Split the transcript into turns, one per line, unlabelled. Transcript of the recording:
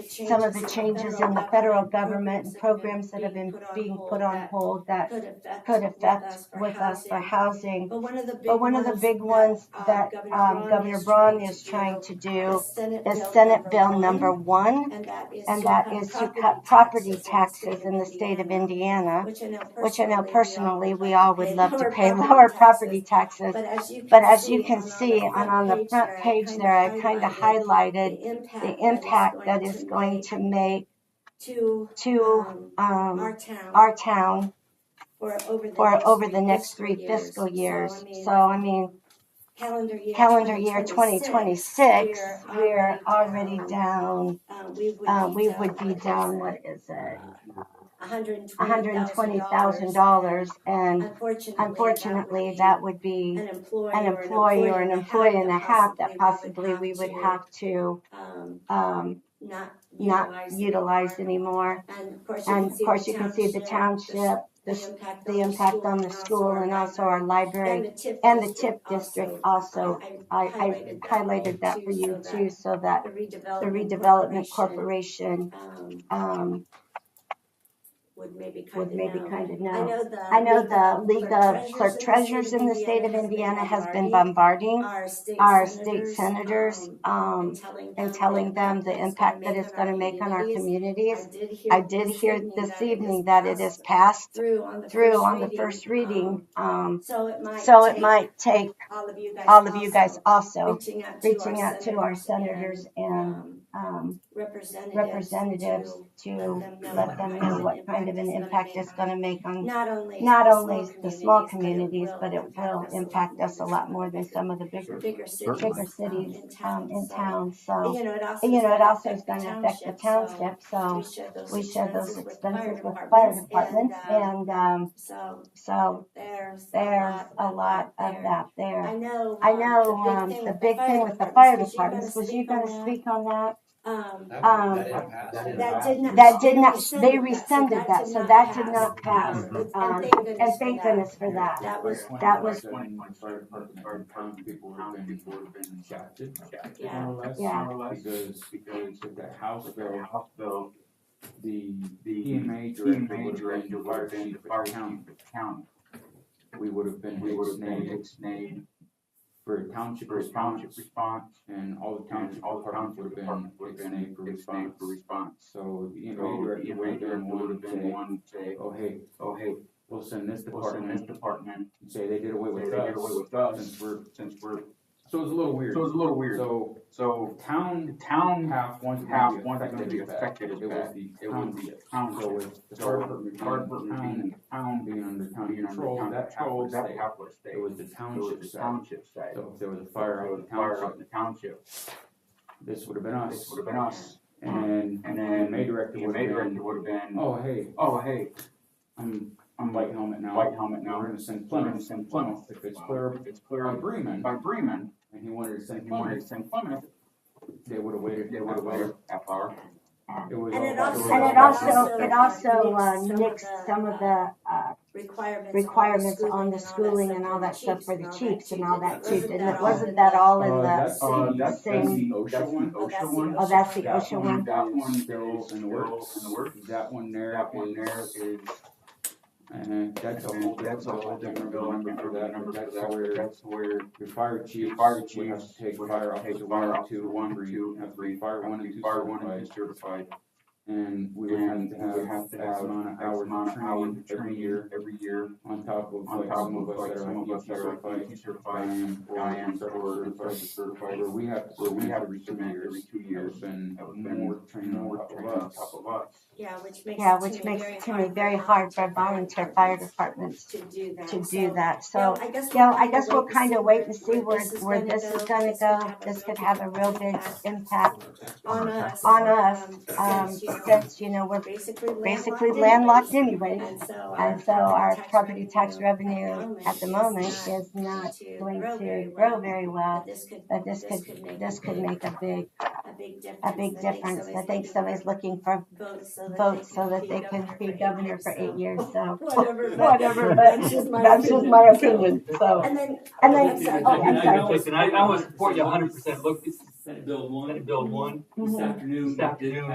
some of the changes in the federal government and programs that have been being put on hold that
could affect,
could affect with us for
housing.
housing.
But one of the big
But one of the big ones that um, Governor Braun is trying to do is Senate Bill number one,
and that is
and that is to cut property taxes in the state of
Indiana,
Indiana,
which
which
I
I
know personally we all would love to
pay lower property taxes.
taxes.
But as you can see, and on the front page there, I kind of highlighted the impact that is going to make
to
to um,
our town
our town
for over the
for
next
over the
three
next
fiscal
three fiscal years.
I mean,
So I mean,
calendar year
calendar year
2026,
2026,
we're
we're already down,
uh, we would
uh,
be
we
down,
would be
like I
down,
said,
what is it?
$120,000.
$120,000 and
Unfortunately,
unfortunately, that would be
an employee,
an employee or an employee and a half that possibly we would have to,
um,
um,
not
not utilize anymore.
And of course, you
And of course, you can see the township, the, s- the impact on the school and also our library and the TIP district also. I, I highlighted that for you too, so that
The
the redevelopment corporation,
um,
um,
would maybe kind
would
of
maybe
know.
kind of
I
know.
know the
I know the
League
League of Clerk Treasurers in the state of Indiana has been bombarding
our state
our state
senators,
senators,
um,
um, and telling them the impact that it's gonna make on our
community.
communities.
I
I did hear this evening that it is passed
through on the
through on the first reading, um,
um, so it might
so it
take
might take
all of you guys
all of you guys
also
also
reaching out to
reaching out to our senators
and,
and,
um,
um,
representatives,
representatives
to
to
them know
let
what
them
kind
know
of
what kind of an impact it's going to make on
not only
not
the
only the small communities, but it
will
will impact us a lot more than some of the bigger,
bigger cities,
bigger cities um, in town. So,
You know, it also,
and, you know, it also is
going to
affect the township. So
So
we share those expenses with fire departments
And, uh,
and, um,
so
so
there's
there's a lot of that there.
I know.
I know, um, the big thing with the fire departments was you going to speak on that?
Um,
Um,
that did not.
That did not,
rescinded that,
they
so
rescinded that, so
did
that did
pass.
not pass.
Um, and
Um,
thank goodness
And
for
thank
that.
goodness for that.
That was,
that was-
Twenty point five percent, our town people have been, people have been shafted.
Yeah.
More or less,
Yeah.
more or less, because, because of the House bill, House bill, the, the EMA director would have been, would have been the fire chief of the county. We would have been, we would have been ex-named for township response, response, and all the township, all the towns would have been ex-named for response.
response.
So the
So
EMA
the
director would have been
would
one
have been one
to say,
to say,
oh, hey,
oh, hey,
we'll send this
what's in this
department,
department?
and say they did away
They
with
did away
us,
with us
since we're
since we're,
so it was a little weird.
so it's a little weird.
So
So
town
town
half wasn't
half
half
wasn't
wasn't
gonna
going to
be
be
affected
affected.
as
It was
bad.
the
it
town.
was the town,
So
so
with the
so
Hartford,
Hartford
town
being, town being
being under county
under
control,
town
that half
control,
was
that
state.
half was state.
It was the
It was
township
the
side.
township side.
So if there was a fire
Fire
out of
out
the
fire out
township,
the township.
this would have been
This
us.
would have been us.
And
And
then
then
May director
the
would
mayor
have
director
been,
would have been,
oh, hey,
oh, hey,
I'm, I'm
I'm
white
like
helmet now.
white helmet now.
We're going to send
We're gonna
Plymouth,
send
Plymouth,
Plymouth.
if it's
Wow.
clear,
If it's clear
by Bremen.
by Bremen,
And he wanted to send
you wanted
Plymouth,
to send Plymouth,
they would have waited.
they would have waited half hour.
It was.
And
all
it
by
also-
the way.
And it also, it also uh, nixed some of the uh,
requirements.
requirements on the schooling and all that stuff for the chiefs and all that too. Didn't it, wasn't Oh, that all in
Uh,
the,
that's
Uh,
the
that's, that's the
same-
OSHA one.
Oh, that's the
oh, that's the
That
OSHA one?
That one
is
still in the works.
in the works.
That one there
That one there
is,
is,
uh, that's a whole
that's a whole different bill, I
number
can't
for
remember the
that,
number
but
for
that's
that, where,
where
that's where
your fire chief,
your fire
would have
chiefs
to take
would have
fire
to take
officer
fire
one, and
officer
two,
one,
one, three,
two,
have to be fire one and two
fire one and
certified.
two certified.
And we would have
And
to
we
have
have
X
to have
amount of
X amount
hours
of hours
of
of
training every
training
year
every year.
on top of
On
like
top
some
of
of us
like
that
some of
are
us
ET
that are
certified.
ET
I
certified.
am, or
I am
certified,
certified, certified,
where we have to
where we
submit
have
every
to
two
submit every
years.
two years.
And
That would have been
more training on
more
top
training on
of
top
us.
of us.
Yeah, which makes.
Yeah, which makes it to me very hard for volunteer fire departments
To do that.
to do
So,
that.
yeah,
So,
I guess.
yeah,
we'll
I guess we'll kind of wait and see
where
where, where this is gonna go. This could have a real big impact
On us.
on us,
since,
um,
you know,
since, you know, we're
Basically.
basically landlocked anyway.
anyways. And so our.
And so our
tax
property tax
revenue
revenue at the moment is not going to grow very well.
But this could,
But this could,
make.
this could make a big,
A big difference.
a big difference. I think somebody's looking for
Votes so
votes so that they can be governor for eight years, so.
Whatever.
Whatever, but
That's just my.
that's just my opinion, so.
And then.
And then-
I'm sorry.
oh, I'm
I
sorry.
know, Listen, I, I want to support you hundred percent. Look, this is
Senate Bill one,
Senate Bill one.
this afternoon.
This afternoon,